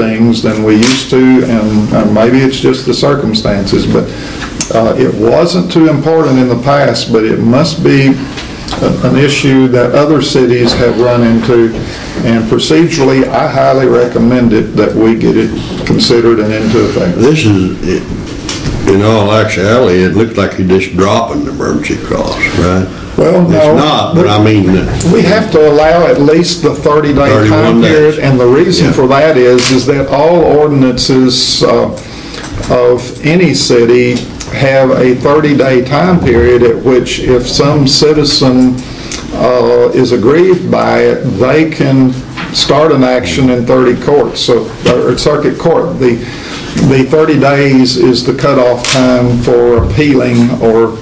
things than we used to, and uh, maybe it's just the circumstances, but uh, it wasn't too important in the past, but it must be a- an issue that other cities have run into, and procedurally, I highly recommend it that we get it considered and into effect. This is, in all actuality, it looks like you're just dropping the emergency clause, right? Well, no. It's not, but I mean, uh, the- We have to allow at least the 30-day time 31 days. period, and the reason Yeah. for that is, is that all ordinances uh, of any city have a 30-day time period at which if some citizen uh, is aggrieved by it, they can start an action in 30 courts, so, or circuit court. The, the 30 days is the cutoff time for appealing or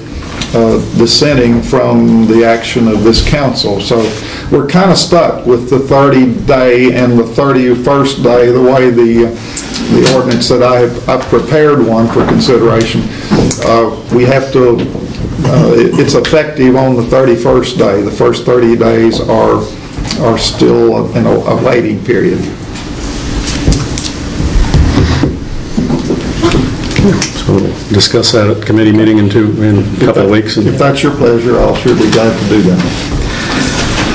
uh, dissenting from the action of this council. So we're kind of stuck with the 30-day and the 31st day, the way the, the ordinance that I have, I've prepared one for consideration. Uh, We have to, uh, it- it's effective on the 31st day. The first 30 days are, are still in a a waiting period. So we'll discuss that at committee meeting in two, in a couple of weeks. If And that's your pleasure, I'll sure be glad to do that.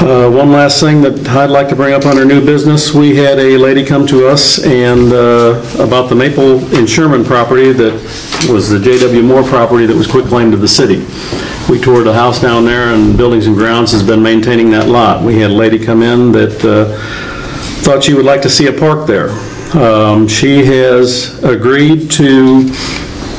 uh, One last thing that I'd like to bring up under new business, we had a lady come to us and, uh, about the Maple and Sherman property that was the J.W. Moore property that was quitclaimed to the city. We toured a house down there, and Buildings and Grounds has been maintaining that lot. We had a lady come in that uh, thought she would like to see a park there. Um, She has agreed to,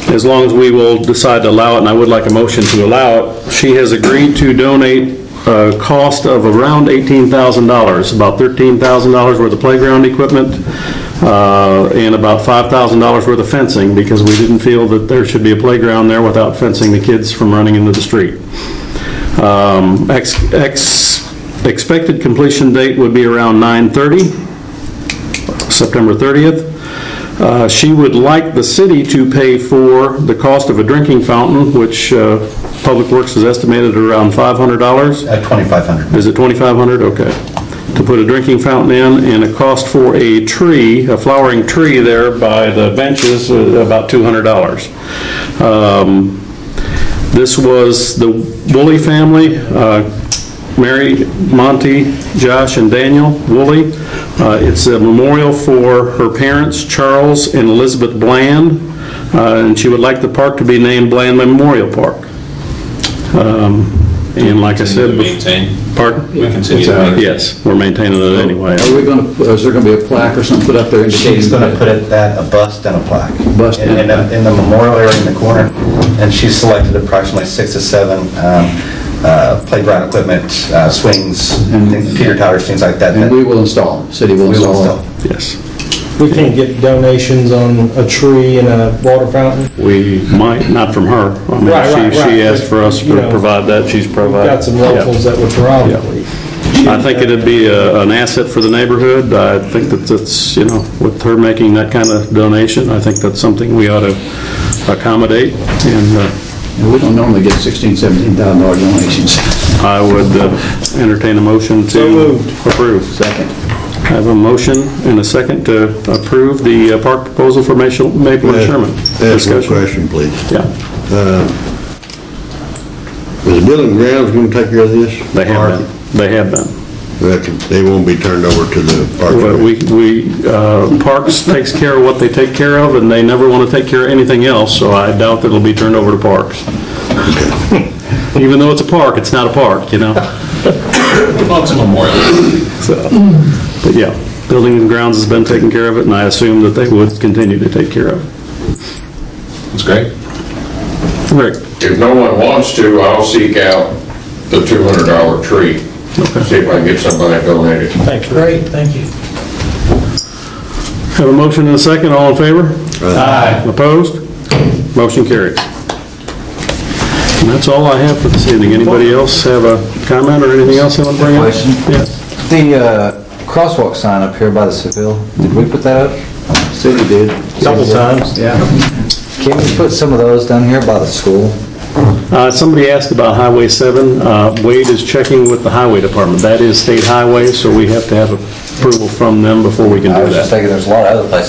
as long as we will decide to allow it, and I would like a motion to allow it, she has agreed to donate a cost of around $18,000, about $13,000 worth of playground equipment, uh, and about $5,000 worth of fencing, because we didn't feel that there should be a playground there without fencing the kids from running into the street. Um, ex- ex- Expected completion date would be around 9:30, September 30th. Uh, She would like the city to pay for the cost of a drinking fountain, which uh, Public Works has estimated at around $500. At 2,500. Is it 2,500? Okay. To put a drinking fountain in, and a cost for a tree, a flowering tree there by the benches, uh, about $200. Um, This was the Woolley family, uh, Mary, Monty, Josh, and Daniel Woolley. Uh, It's a memorial for her parents, Charles and Elizabeth Bland, uh, and she would like the park to be named Bland Memorial Park. Um, And like I said... Continue to maintain. Pardon? We continue to uh, maintain. Yes, we're maintaining it anyway. Are we going to, is there going to be a plaque or something put up there She's indicating going to that? put it that, a bust and a plaque. Bust In- and a in the- plaque. In the memorial area in the corner, and she selected approximately six to seven um, uh, playground equipment, uh, swings, And- things- teeter totters, things like that. And we will install them, city will We will install still. them. Yes. We can't get donations on a tree and a water fountain. We might, not from her. I mean, Right, right, she- She right. asked for us You to know, provide that, she's provided. Got some locals that would Yeah. probably. I think it'd be a- an asset for the neighborhood. I think that that's, you know, with her making that kind of donation, I think that's something we ought to accommodate, and uh, And we don't normally get 16, 17,000 dollar donations. I would uh, entertain a motion to approve. Second. I have a motion and a second to approve the uh, park proposal for Maple Maple and Sherman. ask a Discussion? uh, question, please. Yeah. Is the building grounds going to take care of this? They have Park? been, they have been. That- They won't be turned over to the park. Well, Commission. We, we, uh, Parks takes care of what they take care of, and they never want to take care of anything else, so I doubt that it'll be turned over to Parks. Even though it's a park, it's not a park, you know? Well, it's a memorial. So, But yeah, Building and Grounds has been taking care of it, and I assume that they would continue to take care of It's great. it. Rick? If no one wants to, I'll seek out the $200 tree, see if I can get somebody to donate it. Thanks. Great, thank you. Have a motion and a second, all in favor? Aye. Opposed? Motion carries. And that's all I have for this evening. Anybody else have a comment or anything else they want to bring up? Question? Yeah. The uh, crosswalk sign up here by the Seville, did we put that up? City did, Couple times. yeah. Can we put some of those down here by the school? Uh, Somebody asked about Highway 7. Uh, Wade is checking with the Highway Department. That is state highway, so we have to have a approval from them before we can I do was that. just thinking, there's a lot of other places